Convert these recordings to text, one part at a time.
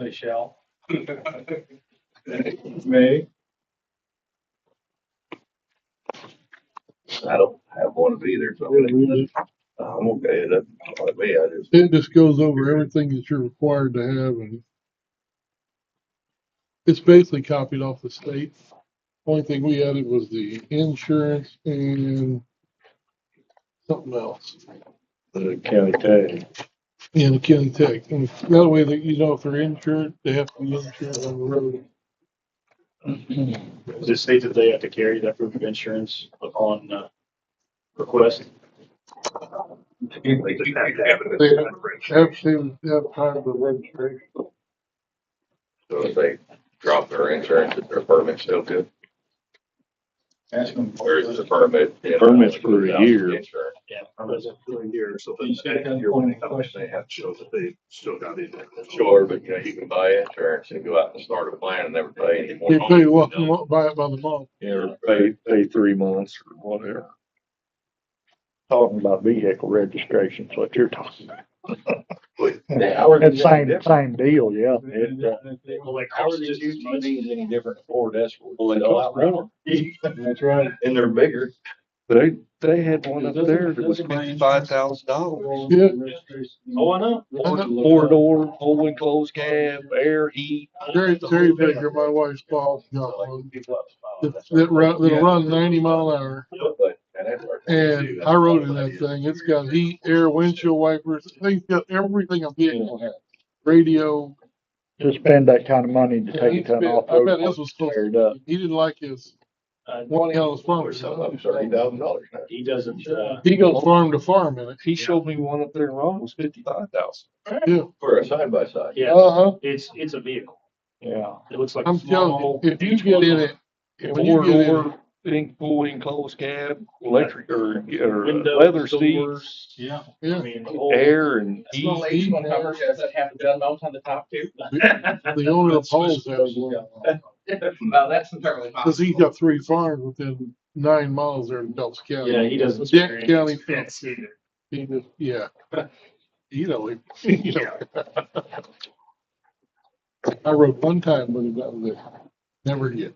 I shall. May. I don't have one of either, so Yeah, we just- I'm okay, that, like me, I just, It just goes over everything that you're required to have and it's basically copied off the state. Only thing we added was the insurance and something else the county tag. in the county tech. And that way that you know if they're insured, they have to be insured on the road. Does it state that they have to carry that proof of insurance upon uh, request? They just have to have it. They have to have time of registration. So if they drop their insurance, is their permit still good? Ask them. Or is the permit? Permit's for a year. Insurance. Yeah. so You just gotta come when point of question. have to show that they still got it. Sure, but you know, you can buy insurance and go out and start a plan and never pay any more. You pay what, you want, buy it by the month. Yeah, or pay, pay three months or whatever. talking about vehicle registrations, what you're talking about. Yeah, It's same, same deal, yeah. It, uh, Well, like, How are these used money any different Ford Escort? they cost more. That's right. And they're bigger. They, they had one up there that was Doesn't- doesn't fifty-five thousand dollars. Yeah. Oh, I know. Four door, full enclosed cab, air, heat. Terry, Terry Baker, my wife's boss, got one. That, that run, that'll run ninety mile an hour. But- and that's our- And I rode in that thing. It's got heat, air, windshield wipers. They've got everything a vehicle has. Radio. to spend that kind of money to Yeah, he take a ton spent- off I bet road. this was close. Teared up. He didn't like his one hell Or farm. something, up thirty thousand dollars now. Uh, He doesn't, uh, He goes farm to farm in it. He showed me one up there in Rome was fifty-five thousand. Yeah. For a side by side. yeah, Uh huh. it's, it's a vehicle. Yeah. It looks like a I'm small. telling you, if you get in it, if you Four get in it, door, in, full enclosed cab, electric or, or windows, leather doors, seats, Yeah. I yeah. mean, the whole- air and heat. Little H one covers, does it have the gun mount on the top too? The owner of Paul's has one. Well, that's entirely possible. Cause he's got three farms within nine miles there in Dulce County. Yeah, he doesn't. Dick County. That's it. He just, yeah. You know, he, you know. I rode one time with him, that was it. Never again.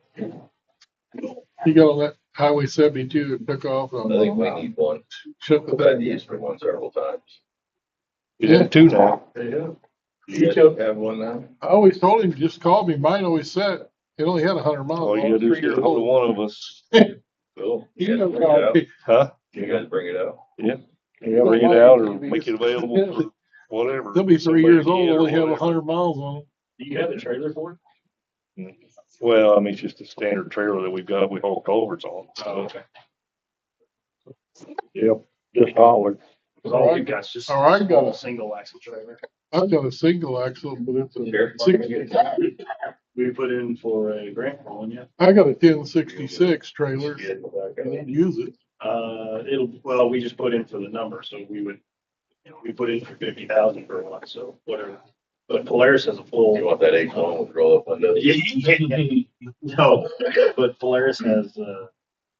He got on that highway seventy-two and took off I and think we I need one. shut the We've had thing. to use for one several times. You have two now. Yeah. You guys have one now? I always told him, just call me. Mine always said, it only had a hundred All miles. you gotta do is get ahold of one of us, Cool. He You guys don't bring it call out? me. huh? You guys bring it out? Yeah, Bring it out or make it available for whatever. They'll be three Somebody years can old, get it or only have a whatever. hundred miles on them. Do you have a trailer for it? Well, I mean, it's just a standard trailer that we've got, we haul culverts on, Oh, so. Just holler. Cause all we've got is just. Or I a got, Single axle trailer. a- I've got a single axle, but it's a Sure. sixty, We put in for a grant for one, yeah. I got a ten sixty-six trailer. Get it I back out. don't use it. Uh, it'll, well, we just put in for the number, so we would, you know, we put in for fifty thousand for one, so whatever. But Polaris has a You full. want that H one with roll up windows? No, but Polaris has, uh,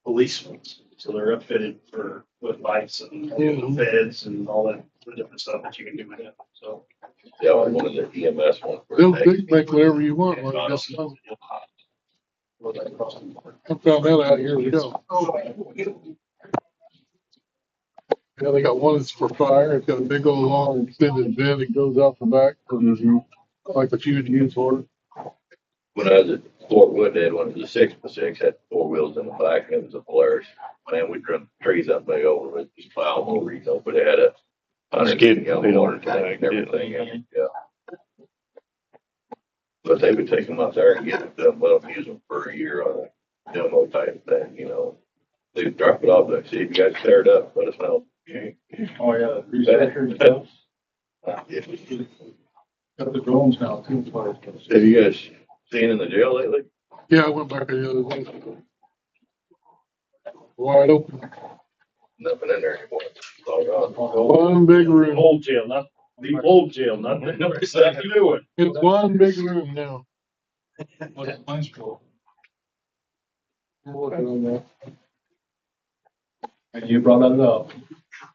police ones, so they're outfitted for, with lights and Mhm. feds and all that different stuff that you can do with it, so. Yeah, I wanted the E EMS one. for They'll taxi. think, make whatever you want, like, Honestly, just, you'll have- well, that costs them more. I found that out years ago. Yeah, they got one that's for fire, it's got a big old long extended bed that goes out the back, like what you would use for it. When I was at Fort Wood, they had one, it was a six by six, had four wheels in the back, and it was a Polaris. Man, we trimmed trees up big over it, just plow them over, you know, but it had a. Just kidding, they don't Water tank and like it. everything, in it, yeah. But they would take them up there and get them, well, use them for a year on a demo type thing, you know. They'd drop it off, they'd see if you guys tear it up, let us Oh, know. yeah. the grease factory and stuff. If Got the drones now too. so- Have you guys seen in the jail lately? Yeah, I went back the other day. Wide open, Nothing in there anymore. It's all gone. one big The room, old jail, not, the old jail, not, the no, it's not the new one. it's one big room now. What's the mine's called? I'm working on that. And you brought that up.